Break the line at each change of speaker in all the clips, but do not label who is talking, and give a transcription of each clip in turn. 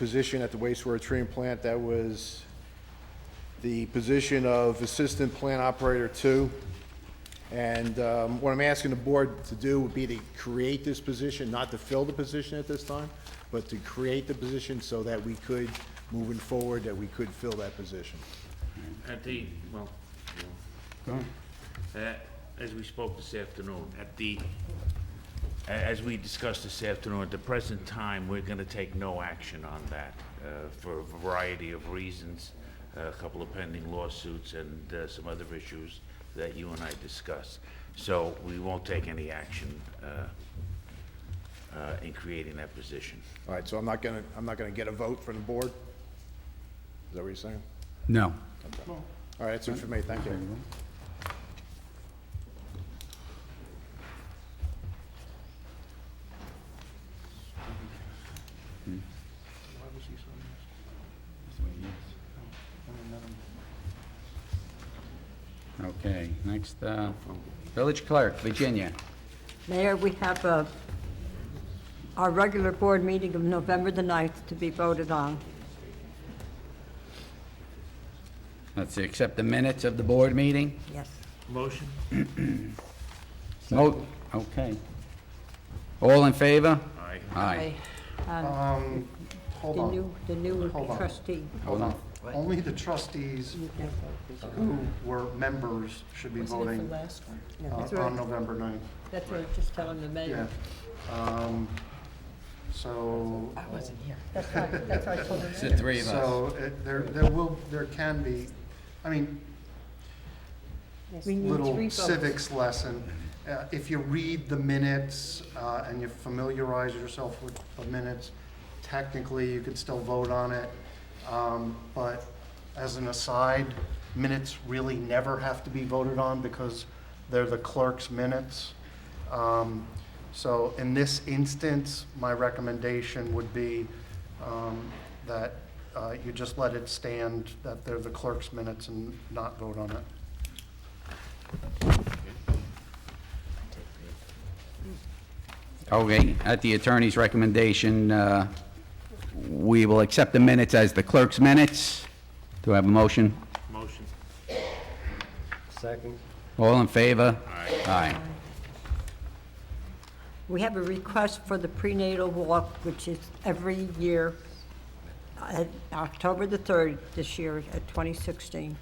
position at the wastewater treatment plant. That was the position of Assistant Plant Operator Two. And um, what I'm asking the board to do would be to create this position, not to fill the position at this time, but to create the position so that we could, moving forward, that we could fill that position.
At the, well, you know, uh, as we spoke this afternoon, at the, a- as we discussed this afternoon, at the present time, we're gonna take no action on that uh, for a variety of reasons, a couple of pending lawsuits and uh, some other issues that you and I discussed. So we won't take any action uh, uh, in creating that position.
All right, so I'm not gonna, I'm not gonna get a vote from the board? Is that what you're saying?
No.
All right, that's it for me, thank you.
Okay, next, uh, village clerk, Virginia.
Mayor, we have uh, our regular board meeting of November the 9th to be voted on.
Let's see, accept the minutes of the board meeting?
Yes.
Motion?
Mo- Oh, Okay. All in favor?
Aye.
Aye.
Um, hold
The
on,
new, the new
Hold on.
trustee.
hold on. Only the trustees who were members should be voting uh,
That's right.
on November 9th.
That's what I was just telling the
Yeah.
mayor.
Um, So,
That's right, that's right, I told
It's
him.
the three of us.
so it- there, there will, there can be, I mean,
We need three
little
votes.
civics lesson. Uh, If you read the minutes uh, and you familiarize yourself with the minutes, technically, you could still vote on it. Um, But as an aside, minutes really never have to be voted on because they're the clerk's minutes. Um, So in this instance, my recommendation would be um, that uh, you just let it stand, that they're the clerk's minutes and not vote on it.
Okay, at the attorney's recommendation, uh, we will accept the minutes as the clerk's minutes. Do I have a motion?
Motion?
All in favor? Aye.
We have a request for the prenatal walk, which is every year, uh, October the 3rd this year at 2016.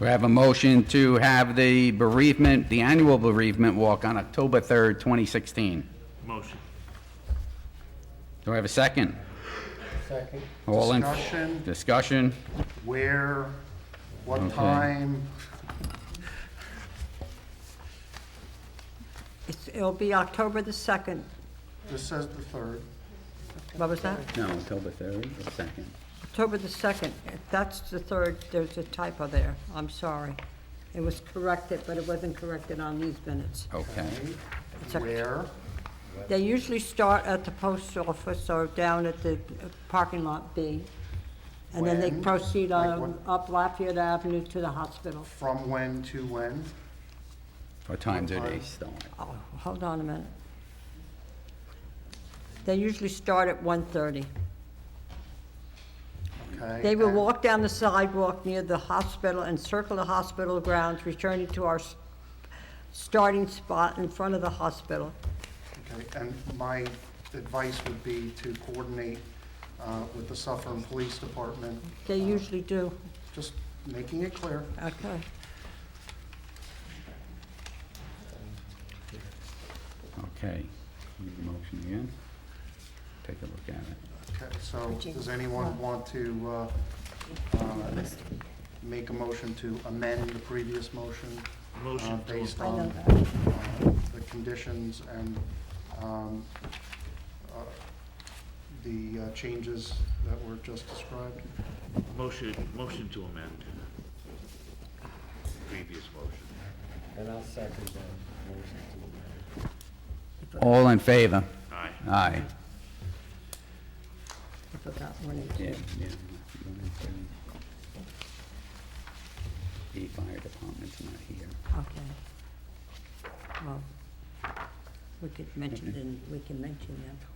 We have a motion to have the bereavement, the annual bereavement walk on October 3rd, 2016.
Motion.
Do I have a second?
Second.
All in-
Discussion,
Discussion?
where, what
Okay.
time,
It's- It'll be October the 2nd.
this says the third.
What was that?
No, October 3rd, or 2nd.
October the 2nd, If that's the 3rd, there's a typo there, I'm sorry. It was corrected, but it wasn't corrected on these minutes.
Okay.
It's Oct-
Where,
They usually start at the post office or down at the parking lot B, and then they
When?
proceed
Like
on
what-
up Lafayette Avenue to the hospital.
from when to when?
What time do they start?
Oh, hold on a minute. They usually start at 1:30.
Okay.
They will
and-
walk down the sidewalk near the hospital and circle the hospital grounds, returning to our s- starting spot in front of the hospital.
Okay, and my advice would be to coordinate uh, with the Suffolk Police Department,
They usually do.
just making it clear.
Okay.
Okay. Need a Motion again? Take a look at it.
Okay, so does anyone want to uh, uh, make a motion to amend the previous motion? uh,
Motion to
based
I know
on
that.
uh, the conditions and um, uh, the uh, changes that were just described.
Motion, motion to amend. Previous motion.
And I'll second that motion to amend.
All in favor?
Aye.
Aye.
I forgot one of
Yeah,
these.
yeah. The fire department's not here.
Okay. Well, we could mention, then we can mention them.